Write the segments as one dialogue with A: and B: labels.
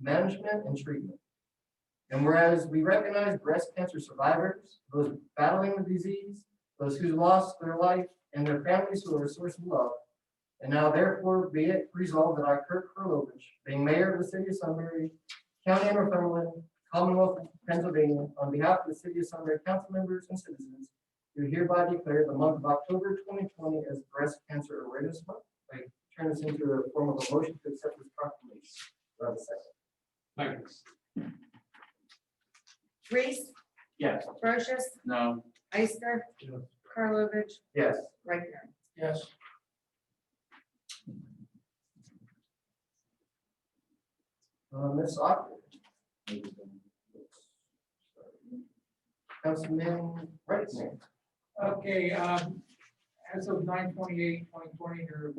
A: management, and treatment. And whereas we recognize breast cancer survivors, those battling the disease, those who lost their life, and their families who are a source of love, and now therefore be it resolved that I, Kirk Karlovich, being mayor of the city of Sunbury, county of Northumberland, Commonwealth of Pennsylvania, on behalf of the city of Sunbury council members and citizens, do hereby declare the month of October twenty twenty as Breast Cancer Awareness Month. I turn this into a form of a motion to accept this proclamation. Do I have a second?
B: Thanks.
C: Reese,
B: Yes.
C: Brochus,
B: No.
C: Ister,
B: Yes.
C: Karlovic,
A: Yes.
C: Rechner.
B: Yes.
A: Uh, Ms. Ogden. Councilman Reitzner.
D: Okay, um, as of 9/28/2020, your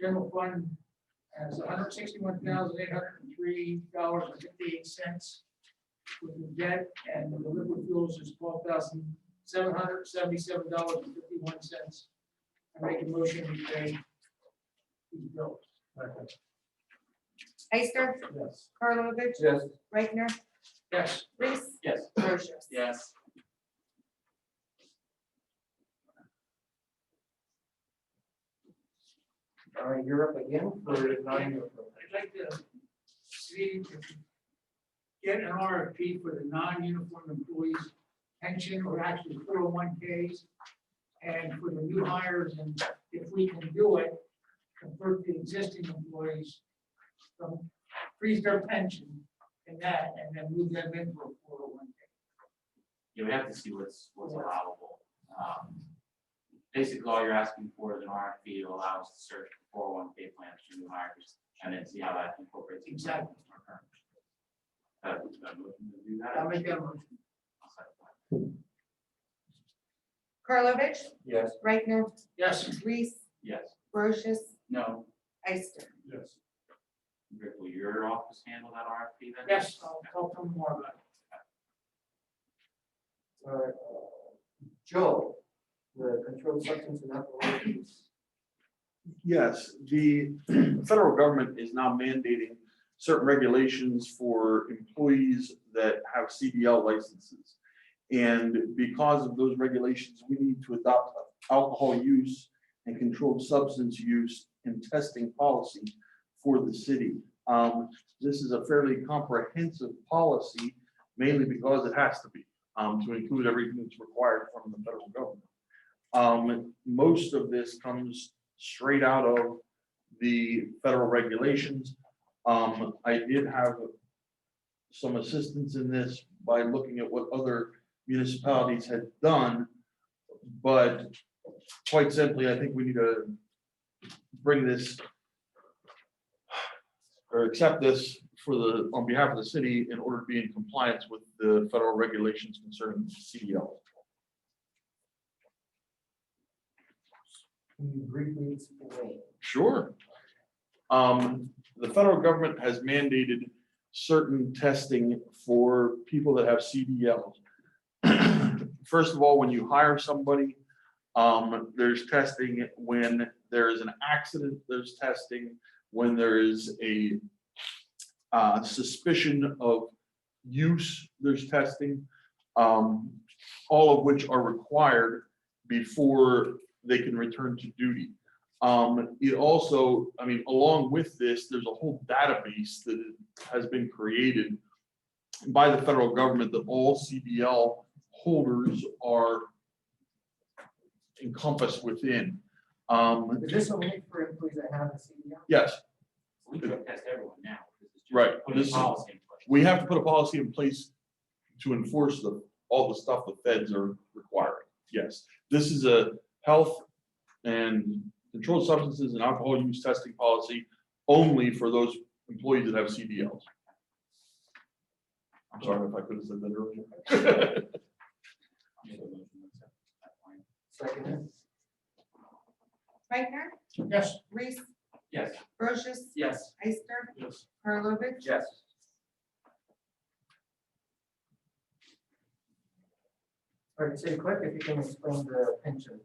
D: general fund has hundred sixty-one thousand eight hundred and three dollars and fifty-eight cents with the debt, and the liquid fuels is twelve thousand seven hundred seventy-seven dollars and fifty-one cents. I make a motion to pay these bills.
C: Ister,
D: Yes.
C: Karlovic,
A: Yes.
C: Rechner,
D: Yes.
C: Reese,
B: Yes.
C: Brochus.
B: Yes.
A: All right, Uh, you're up again for nine.
D: I'd like to uh, see if we can get an RFP for the non-uniform employees pension or actually four oh one Ks and for the new hires and if we can do it, convert the existing employees from freeze their pension and that and then move them into a four oh one K.
E: you would have to see what's, what's allowable. Um, Basically, all you're asking for is an RFP to allow us to search for oh one K plans to new hires and then see how that incorporates. into our
D: Exactly.
E: current. Uh, do I have a motion to do that?
D: I'll make that a motion.
E: I'll second that.
C: Karlovic,
A: Yes.
C: Rechner,
D: Yes,
C: Reese,
E: Yes,
C: Brochus,
E: no,
C: Ister.
B: Yes.
E: Rick, will your office handle that RFP then?
D: yes, I'll talk to them more about it.
A: All right. uh, Joe, the controlled substance and alcohol abuse.
F: Yes, the federal government is now mandating certain regulations for employees that have CDL licenses. And because of those regulations, we need to adopt alcohol use and controlled substance use and testing policy for the city. Um, This is a fairly comprehensive policy, mainly because it has to be, um, to include everything that's required from the federal government. Um, Most of this comes straight out of the federal regulations. Um, I did have some assistance in this by looking at what other municipalities had done. But quite simply, I think we need to bring this or accept this for the, on behalf of the city in order to be in compliance with the federal regulations concerning E CDL.
A: Can you briefly explain?
F: Sure. Um, the federal government has mandated certain testing for people that have CDL. First of all, when you hire somebody, um, there's testing when there is an accident, there's testing when there is a uh, suspicion of use, there's testing, um, all of which are required before they can return to duty. Um, it also, I mean, along with this, there's a whole database that has been created by the federal government that all CDL holders are encompassed within. Um,
A: Is this only for employees that have a CDL?
F: yes,
E: We drug test everyone now. This is just
F: Right,
E: putting
F: this-
E: policy in place.
F: we have to put a policy in place to enforce the, all the stuff the feds are requiring. Yes, this is a health and controlled substances and alcohol use testing policy only for those employees that have CDLs. I'm sorry if I could have said that earlier.
E: I'll make a motion to accept that
A: Second.
E: plan.
C: Rechner,
D: Yes.
C: Reese,
E: Yes,
C: Brochus,
B: Yes.
C: Ister,
B: Yes.
C: Karlovic,
A: Yes. All right, City Clerk, if you can explain the pension.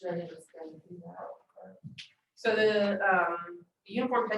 C: Jenny was gonna do that.
G: So the um, the uniform pension